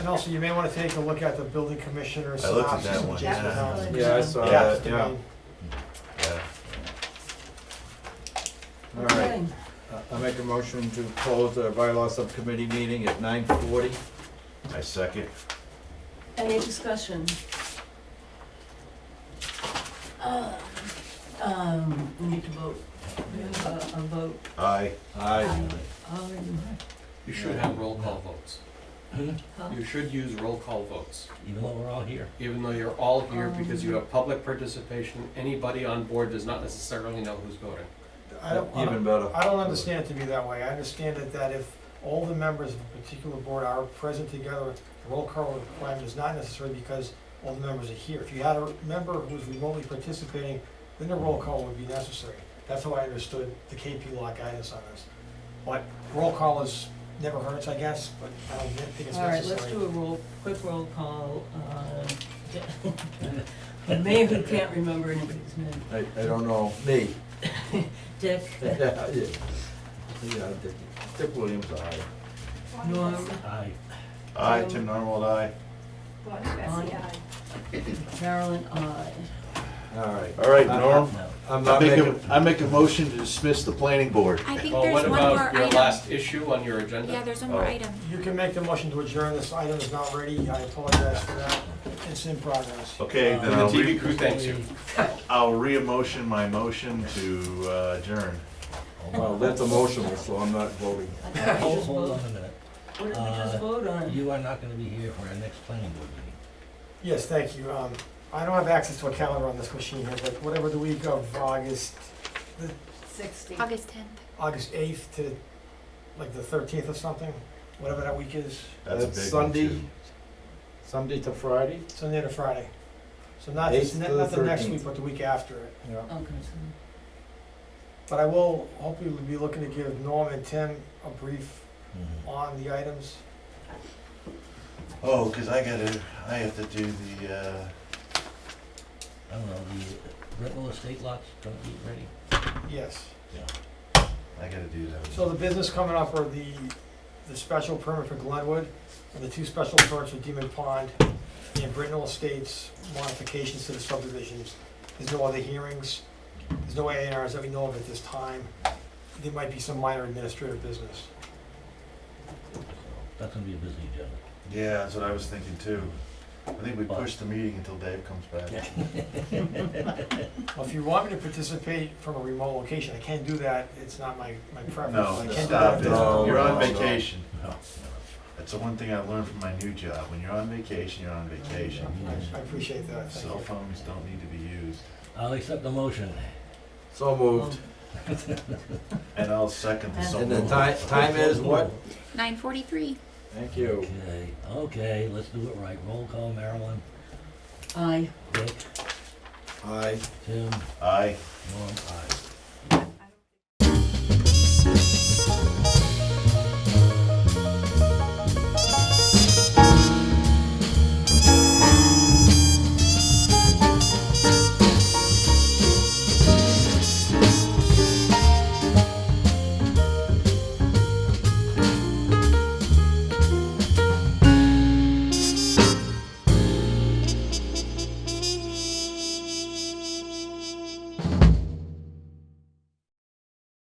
And also, you may wanna take a look at the building commissioner's I looked at synopsis. that and one, Jason yeah. Allen's. Yeah, I saw Yeah. that, That's the yeah. main- Yeah. All right, Uh, I make a motion to close the bylaw subcommittee meeting at nine forty. I second. Any discussion? Uh, Um, we need to vote, We have a, a vote. Aye. Aye. All in- You should have roll call votes. huh? You should use roll call votes, even though we're all here. even though you're all here Um, because you have public participation. Anybody on board does not necessarily know who's voting. I don't, I uh, don't- Even better. I don't understand it to be that way. I understand it that if all the members of a particular board are present together, roll call requirement is not necessary because all the members are here. If you had a member who was remotely participating, then the roll call would be necessary. That's how I understood the KP law guidance on this. But roll call is, never hurts, I guess, but I don't think it's All right, let's do necessary. a roll, quick roll call, uh, May, who can't remember anybody's name, I, I don't know, me. Dick, Yeah, yeah. Yeah, Dick- Dick Williams, aye. Norm, Aye. Aye, Tim Norwood, aye. Marilyn, I. All right. All right, I- Norm. No. I'm I not make making, a, I make a motion to dismiss the planning board. I think Well, there's what one more about item. your last issue on your Yeah, agenda? there's one more Oh. item. You can make the motion to adjourn. This item is not ready. I apologize for that. It's in progress. Uh, Okay, And then the I'll TV re, crew thanks you. I'll re-emotion my motion to uh, adjourn. well, that's emotional, so I'm not voting. I thought we Hold, just hold vote- on a minute. What did we just Uh, vote on? You are not gonna be here for our next planning board meeting. Yes, thank you. Um, I don't have access to a calendar on this machine here, but whatever the week of August, Sixty. August tenth. August eighth to like the thirteenth or something, whatever that week is, That's a That's big one, Sunday. too. Sunday to Friday? Sunday to Friday. So not, 8th to not not the the next 13th. week, but the week after it. Yeah. Okay, so. But I will hopefully be looking to give Norm and Tim a brief Mhm. on the items. Oh, because I gotta, I have to do the, uh, I don't know, the Brittenell Estate lots don't get ready. Yes. I gotta do So that. the business coming up are the, the special permit for Glenwood, and the two special permits for Demon Pond, and Brittenell Estates modifications to the subdivisions. There's no other hearings, there's no A and Rs that we know of at this time. There might be some minor administrative business. So That's gonna be a busy agenda. Yeah, that's what I was thinking too. I think we push the meeting until Dave comes back. Well, if you want me to participate from a remote location, I can do that, it's not my, my preference. I No, can do stop that. it. No, You're on no, no. vacation. That's the one thing I learned from my new job. When you're on vacation, you're on vacation. I- I appreciate that, thank Cell you. phones don't need to be used. I'll accept the motion. So moved. And I'll second the And- so And the moved. time, time is what? Nine forty-three. Thank you. Okay, okay, let's do it right. Roll call, Marilyn, Aye. Dick, Aye. Tim, Aye. Norm, aye.